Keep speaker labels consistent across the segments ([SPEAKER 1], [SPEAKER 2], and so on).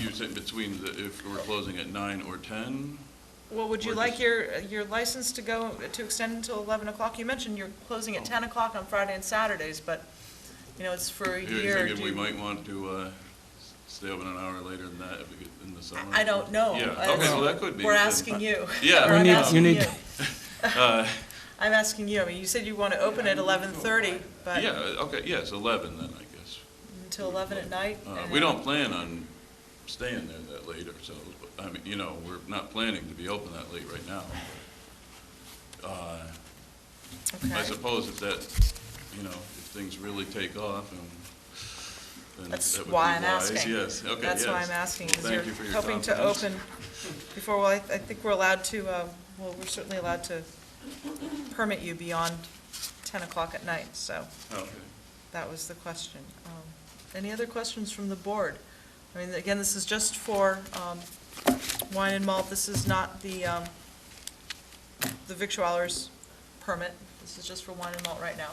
[SPEAKER 1] you're saying between, the- if we're closing at nine or ten?
[SPEAKER 2] Well, would you
[SPEAKER 1] Or
[SPEAKER 2] like
[SPEAKER 1] just-
[SPEAKER 2] your, your license to go, to extend until 11 o'clock? You mentioned you're closing
[SPEAKER 1] Oh.
[SPEAKER 2] at 10 o'clock on Friday and Saturdays, but, you know, it's for a
[SPEAKER 1] Are you
[SPEAKER 2] year.
[SPEAKER 1] thinking
[SPEAKER 2] Do
[SPEAKER 1] we
[SPEAKER 2] you-
[SPEAKER 1] might want to uh, s- stay open an hour later than that if we get in the summer?
[SPEAKER 2] I I don't know.
[SPEAKER 1] Yeah,
[SPEAKER 2] I-
[SPEAKER 1] okay, well, that could be.
[SPEAKER 2] We're
[SPEAKER 1] then.
[SPEAKER 2] asking you.
[SPEAKER 1] Yeah.
[SPEAKER 2] We're
[SPEAKER 1] You
[SPEAKER 2] not
[SPEAKER 1] need- you
[SPEAKER 2] asking
[SPEAKER 3] need-
[SPEAKER 1] Uh,
[SPEAKER 2] I'm asking you. I mean, you said you want to open at 11:30,
[SPEAKER 1] Yeah,
[SPEAKER 2] but
[SPEAKER 1] okay, yes, eleven then, I guess.
[SPEAKER 2] until 11 at night?
[SPEAKER 1] Uh,
[SPEAKER 2] and-
[SPEAKER 1] We don't plan on staying there that late ourselves, but, I mean, you know, we're not planning to be open that late right now. Uh, I
[SPEAKER 2] Okay.
[SPEAKER 1] suppose if that, you know, if things really take off and. then
[SPEAKER 2] That's
[SPEAKER 1] that would be
[SPEAKER 2] why I'm
[SPEAKER 1] wise.
[SPEAKER 2] asking.
[SPEAKER 1] Yes, okay,
[SPEAKER 2] That's why
[SPEAKER 1] yes.
[SPEAKER 2] I'm asking,
[SPEAKER 1] Well,
[SPEAKER 2] is
[SPEAKER 1] thank
[SPEAKER 2] you're
[SPEAKER 1] you for your
[SPEAKER 2] hoping to
[SPEAKER 1] confidence.
[SPEAKER 2] open before, well, I I think we're allowed to, uh, well, we're certainly allowed to permit you beyond 10 o'clock at night, so
[SPEAKER 1] Okay.
[SPEAKER 2] that was the question. Um, Any other questions from the board? I mean, again, this is just for um, wine and malt, this is not the, um, the victualler's permit, this is just for wine and malt right now.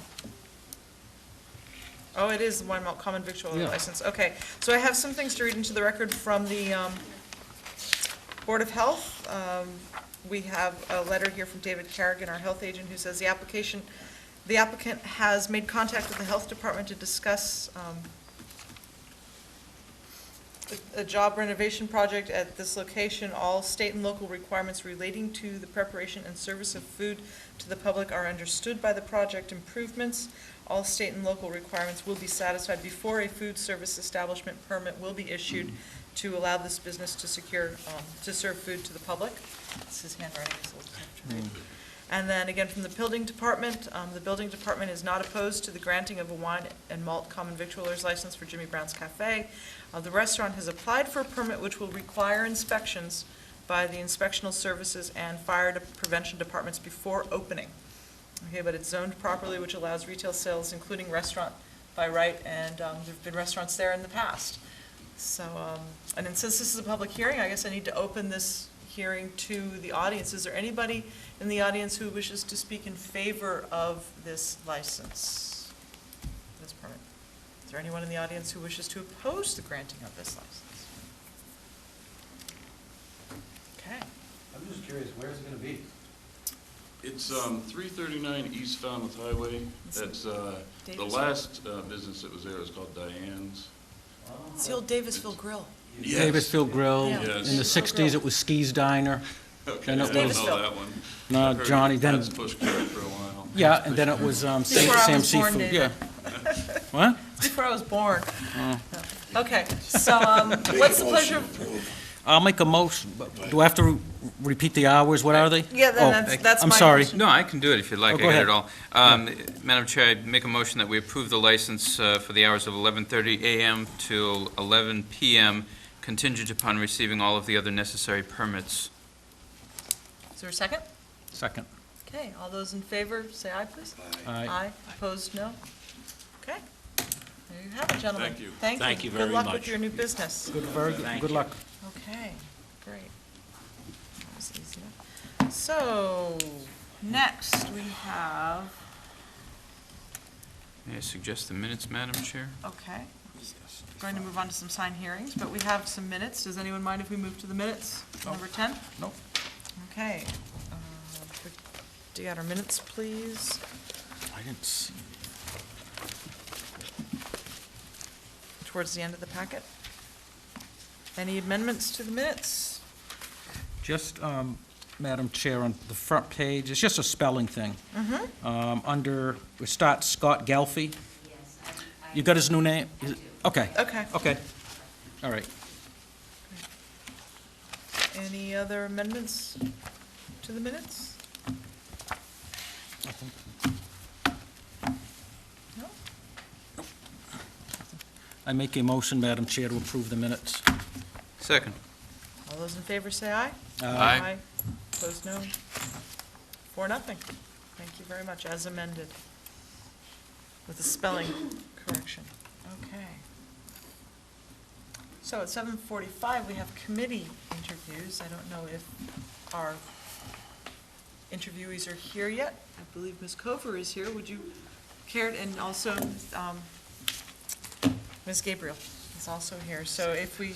[SPEAKER 2] Oh, it is the wine malt common victualler
[SPEAKER 3] Yeah.
[SPEAKER 2] license, okay. So I have some things to read into the record from the um, Board of Health. Um, We have a letter here from David Carrigan, our health agent, who says the application, the applicant has made contact with the health department to discuss um, a a job renovation project at this location. All state and local requirements relating to the preparation and service of food to the public are understood by the project improvements. All state and local requirements will be satisfied before a food service establishment permit will be issued to allow this business to secure, um, to serve food to the public. This is handwriting, it's a little tough to read. And then again, from the building department, um, the building department is not opposed to the granting of a wine and malt common victualer's license for Jimmy Brown's Cafe. Uh, The restaurant has applied for a permit which will require inspections by the inspectional services and fire de- prevention departments before opening. Okay, but it's zoned properly, which allows retail sales, including restaurant by right, and um, there've been restaurants there in the past. So, um, and then since this is a public hearing, I guess I need to open this hearing to the audience. Is there anybody in the audience who wishes to speak in favor of this license, this permit? Is there anyone in the audience who wishes to oppose the granting of this license? Okay.
[SPEAKER 4] I'm just curious, where's it gonna be?
[SPEAKER 1] It's um, 339 East Falmouth Highway.
[SPEAKER 2] It's
[SPEAKER 1] That's, uh, the
[SPEAKER 2] Davis.
[SPEAKER 1] last uh, business that was there is called Diane's.
[SPEAKER 2] It's the old Davisville Grill.
[SPEAKER 1] Yes.
[SPEAKER 3] Davisville Grill.
[SPEAKER 2] Yeah.
[SPEAKER 1] Yes.
[SPEAKER 3] In the sixties, it was Ski's Diner.
[SPEAKER 1] Okay, I
[SPEAKER 3] And it
[SPEAKER 1] don't know
[SPEAKER 2] was-
[SPEAKER 1] that one.
[SPEAKER 3] No,
[SPEAKER 1] I've heard
[SPEAKER 3] Johnny, then-
[SPEAKER 1] That's pushed carrot for a while.
[SPEAKER 3] Yeah, and then it was um, Sam
[SPEAKER 2] Before I
[SPEAKER 3] Sam
[SPEAKER 2] was born,
[SPEAKER 3] Seafood.
[SPEAKER 2] David.
[SPEAKER 3] Yeah. What?
[SPEAKER 2] Before I was born. Okay, so um, what's the pleasure?
[SPEAKER 3] I'll make a motion, but do I have to re- repeat the hours? What are they?
[SPEAKER 2] Yeah,
[SPEAKER 3] Oh,
[SPEAKER 2] then that's, that's my
[SPEAKER 3] I'm sorry.
[SPEAKER 2] question.
[SPEAKER 5] No, I can do it if you'd like.
[SPEAKER 3] Oh,
[SPEAKER 5] I
[SPEAKER 3] go
[SPEAKER 5] got
[SPEAKER 3] ahead.
[SPEAKER 5] it all. Um, Madam Chair, I'd make a motion that we approve the license uh, for the hours of 11:30 a.m. to 11 p.m., contingent upon receiving all of the other necessary permits.
[SPEAKER 2] Is there a second?
[SPEAKER 3] Second.
[SPEAKER 2] Okay, all those in favor, say aye, please.
[SPEAKER 3] Aye.
[SPEAKER 2] opposed, no? Okay. There you have it, gentlemen.
[SPEAKER 1] Thank you.
[SPEAKER 2] Thank you.
[SPEAKER 6] Thank you very
[SPEAKER 2] Good luck with
[SPEAKER 6] much.
[SPEAKER 2] your new business.
[SPEAKER 3] Good, very good. Good luck.
[SPEAKER 2] Okay, great. That was easy enough. So, next we have,
[SPEAKER 5] May I suggest the minutes, Madam Chair?
[SPEAKER 2] okay, going to move on to some sign hearings, but we have some minutes. Does anyone mind if we move to the minutes? Number 10?
[SPEAKER 3] Nope.
[SPEAKER 2] Okay. uh, if we- Do you got our minutes, please?
[SPEAKER 3] I didn't see.
[SPEAKER 2] Towards the end of the packet? Any amendments to the minutes?
[SPEAKER 3] Just, um, Madam Chair, on the front page, it's just a spelling thing.
[SPEAKER 2] Mm-hmm.
[SPEAKER 3] Um, Under, we start Scott Gelfi.
[SPEAKER 7] Yes, I- I-
[SPEAKER 3] You got his new name? Is it- Okay,
[SPEAKER 2] Okay.
[SPEAKER 3] okay. All right.
[SPEAKER 2] Any other amendments to the minutes? No?
[SPEAKER 3] I make a motion, Madam Chair, to approve the minutes.
[SPEAKER 5] Second.
[SPEAKER 2] All those in favor say aye.
[SPEAKER 3] Uh,
[SPEAKER 5] Aye.
[SPEAKER 2] Opposed, no. Four, nothing. Thank you very much, as amended, with a spelling correction. Okay. So at seven forty-five, we have committee interviews. I don't know if our interviewees are here yet. I believe Ms. Cover is here. Would you care, and also um, Ms. Gabriel is also here. So if we